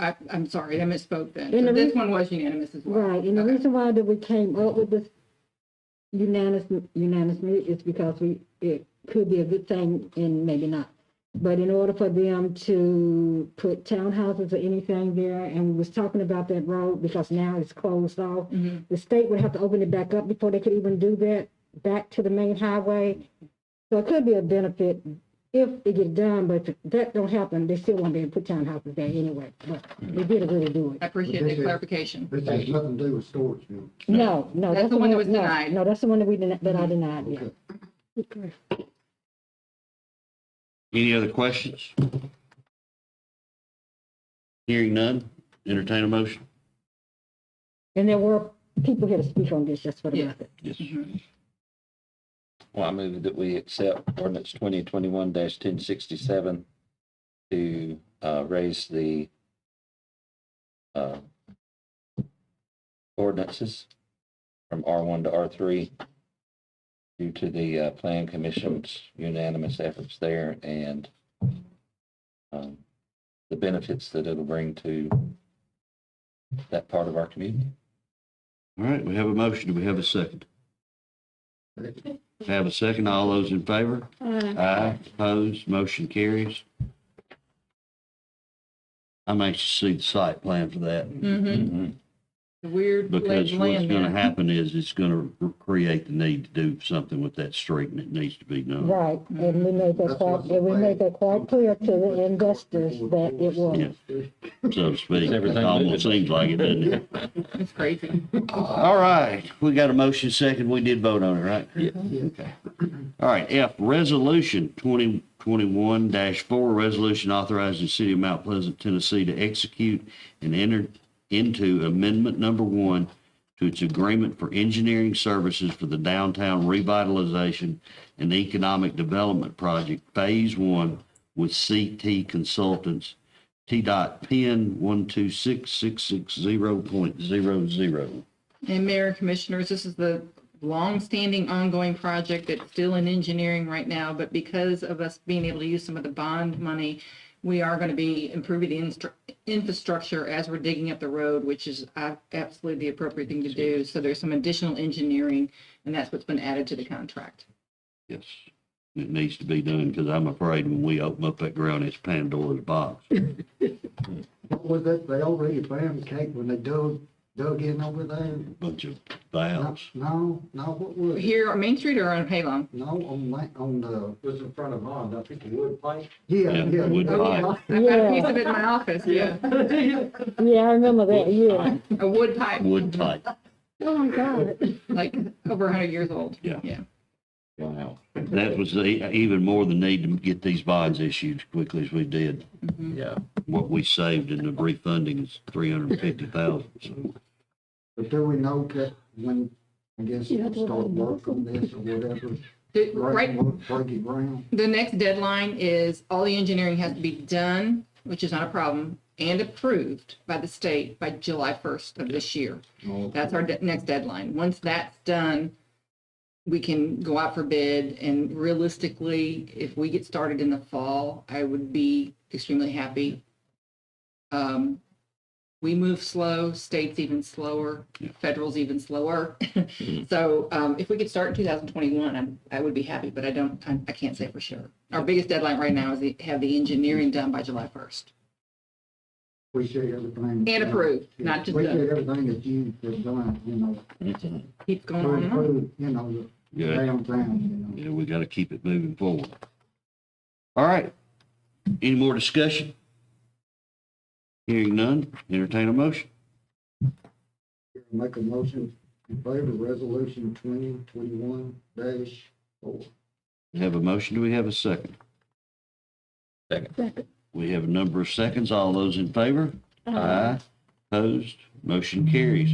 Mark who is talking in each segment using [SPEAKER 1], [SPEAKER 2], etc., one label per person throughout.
[SPEAKER 1] I, I'm sorry, I misspoke then.
[SPEAKER 2] And
[SPEAKER 1] So
[SPEAKER 2] the
[SPEAKER 1] this
[SPEAKER 2] reason-
[SPEAKER 1] one was unanimous as well.
[SPEAKER 2] Right, and the
[SPEAKER 1] Okay.
[SPEAKER 2] reason why that we came up with this unanimous, unanimously is because we, it could be a good thing and maybe not. But in order for them to put townhouses or anything there, and we was talking about that road because now it's closed off.
[SPEAKER 1] Mhm.
[SPEAKER 2] The state would have to open it back up before they could even do that, back to the main highway. So it could be a benefit if it get done, but if that don't happen, they still won't be able to put townhouses there anyway. But they did really do it.
[SPEAKER 1] I appreciate
[SPEAKER 3] This
[SPEAKER 1] that
[SPEAKER 3] is-
[SPEAKER 1] clarification.
[SPEAKER 3] This has nothing to do with storage units.
[SPEAKER 2] No, no.
[SPEAKER 1] That's the one that was
[SPEAKER 2] no,
[SPEAKER 1] denied. Mm-hmm.
[SPEAKER 2] No, that's the one that we denied, that I denied, yeah.
[SPEAKER 3] Okay.
[SPEAKER 4] Any other questions? Hearing none, entertain a motion.
[SPEAKER 2] And there were people here to speak on this, just for the
[SPEAKER 1] Yeah.
[SPEAKER 2] record.
[SPEAKER 4] Yes.
[SPEAKER 1] Mhm.
[SPEAKER 5] Well, I move that we accept ordinance twenty twenty-one ten sixty-seven to, uh, raise the, uh, ordinances from R one to R three due to the, uh, plan commission's unanimous efforts there and, um, the benefits that it'll bring to that part of our community.
[SPEAKER 4] All right, we have a motion. Do we have a second?
[SPEAKER 3] Second.
[SPEAKER 4] Have a second. All those in favor? Aye. Opposed, motion carries. I'm anxious to see the site plan for that
[SPEAKER 1] Mhm.
[SPEAKER 5] Mm-hmm.
[SPEAKER 1] The weird
[SPEAKER 4] because
[SPEAKER 1] ledge
[SPEAKER 4] what's
[SPEAKER 1] land
[SPEAKER 4] going to
[SPEAKER 1] there.
[SPEAKER 4] happen is it's going to create the need to do something with that street and it needs to be done.
[SPEAKER 2] Right, and we made that
[SPEAKER 3] That's
[SPEAKER 2] quite,
[SPEAKER 3] what's the
[SPEAKER 2] and we
[SPEAKER 3] plan.
[SPEAKER 2] made that quite clear to the investors that it was.
[SPEAKER 4] Yeah. So to speak,
[SPEAKER 5] It's
[SPEAKER 4] it
[SPEAKER 5] everything
[SPEAKER 4] almost seems like it, doesn't it?
[SPEAKER 1] It's crazy.
[SPEAKER 4] All right, we got a motion second. We did vote on it, right? Yeah. Okay. All right, F, resolution twenty twenty-one four, resolution authorizing the city of Mount Pleasant, Tennessee to execute and enter into amendment number one to its agreement for engineering services for the downtown revitalization and economic development project, phase one with CT Consultants, T dot pin one two six six six zero point zero zero.
[SPEAKER 1] And Mayor and Commissioners, this is the long-standing, ongoing project that's still in engineering right now, but because of us being able to use some of the bond money, we are going to be improving the instru- infrastructure as we're digging up the road, which is uh, absolutely the appropriate thing to do. So there's some additional engineering, and that's what's been added to the contract.
[SPEAKER 4] Yes, it needs to be done, because I'm afraid when we open up that ground, it's Pandora's box.
[SPEAKER 3] What was that, they already found cake when they dug, dug in over there?
[SPEAKER 4] Bunch of
[SPEAKER 3] No,
[SPEAKER 4] valves.
[SPEAKER 3] no, no, what was it?
[SPEAKER 1] Here on Main Street or on Halong?
[SPEAKER 3] No, on, Ma- on the,
[SPEAKER 6] was in front of mine, I think the wood pipe.
[SPEAKER 3] yeah,
[SPEAKER 4] Yeah,
[SPEAKER 3] yeah.
[SPEAKER 4] wood
[SPEAKER 3] Oh,
[SPEAKER 4] pipe.
[SPEAKER 3] yeah.
[SPEAKER 1] I've got a piece
[SPEAKER 2] Yeah.
[SPEAKER 1] of it in my office, yeah.
[SPEAKER 2] Yeah, I remember that, yeah.
[SPEAKER 1] A wood pipe,
[SPEAKER 4] Wood type.
[SPEAKER 2] Oh, my God.
[SPEAKER 1] like over 100 years old.
[SPEAKER 4] Yeah.
[SPEAKER 1] Yeah.
[SPEAKER 5] Wow.
[SPEAKER 4] That was the, even more the need to get these bonds issued as quickly as we did.
[SPEAKER 1] Mm-hmm.
[SPEAKER 5] Yeah.
[SPEAKER 4] What we saved in the refunding is three hundred and fifty thousand, so.
[SPEAKER 3] But do we know that when, I guess, we start work on this or whatever?
[SPEAKER 1] Did- Right,
[SPEAKER 3] break- Break it ground?
[SPEAKER 1] The next deadline is all the engineering has to be done, which is not a problem, and approved by the state by July 1st of this year.
[SPEAKER 3] Oh,
[SPEAKER 1] That's our de- next deadline. Once that's done, we can go out for bid and realistically, if we get started in the fall, I would be extremely happy. Um, we move slow, states even slower, federal's even slower. So, um, if we could start in two thousand twenty-one, I'm, I would be happy, but I don't, I, I can't say for sure. Our biggest deadline right now is to have the engineering done by July first
[SPEAKER 3] Appreciate everything.
[SPEAKER 1] and approved, not just done.
[SPEAKER 3] Appreciate everything that you have done, you know,
[SPEAKER 1] keep going
[SPEAKER 3] to
[SPEAKER 1] on and on.
[SPEAKER 3] improve, you know, the
[SPEAKER 4] Yeah,
[SPEAKER 3] downtown, you know.
[SPEAKER 4] yeah, we gotta keep it moving forward. All right, any more discussion? Hearing none, entertain a motion.
[SPEAKER 3] Make a motion in favor of resolution twenty twenty-one dash four.
[SPEAKER 4] We Have a motion, do we have a second?
[SPEAKER 5] Second.
[SPEAKER 4] We have a number of seconds. All those in favor?
[SPEAKER 3] Uh,
[SPEAKER 4] Aye. Opposed? Motion carries.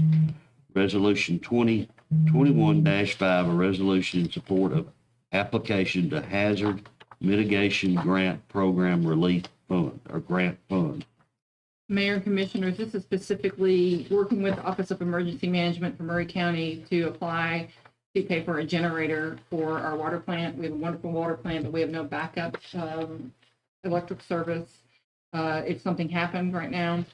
[SPEAKER 4] Resolution twenty twenty-one five, a resolution in support of application to hazard mitigation grant program relief fund or grant fund.
[SPEAKER 1] Mayor and Commissioners, this is specifically working with the Office of Emergency Management for Murray County to apply to pay for a generator for our water plant. We have a wonderful water plant, but we have no backup um, electric service. Uh, If something happened right now,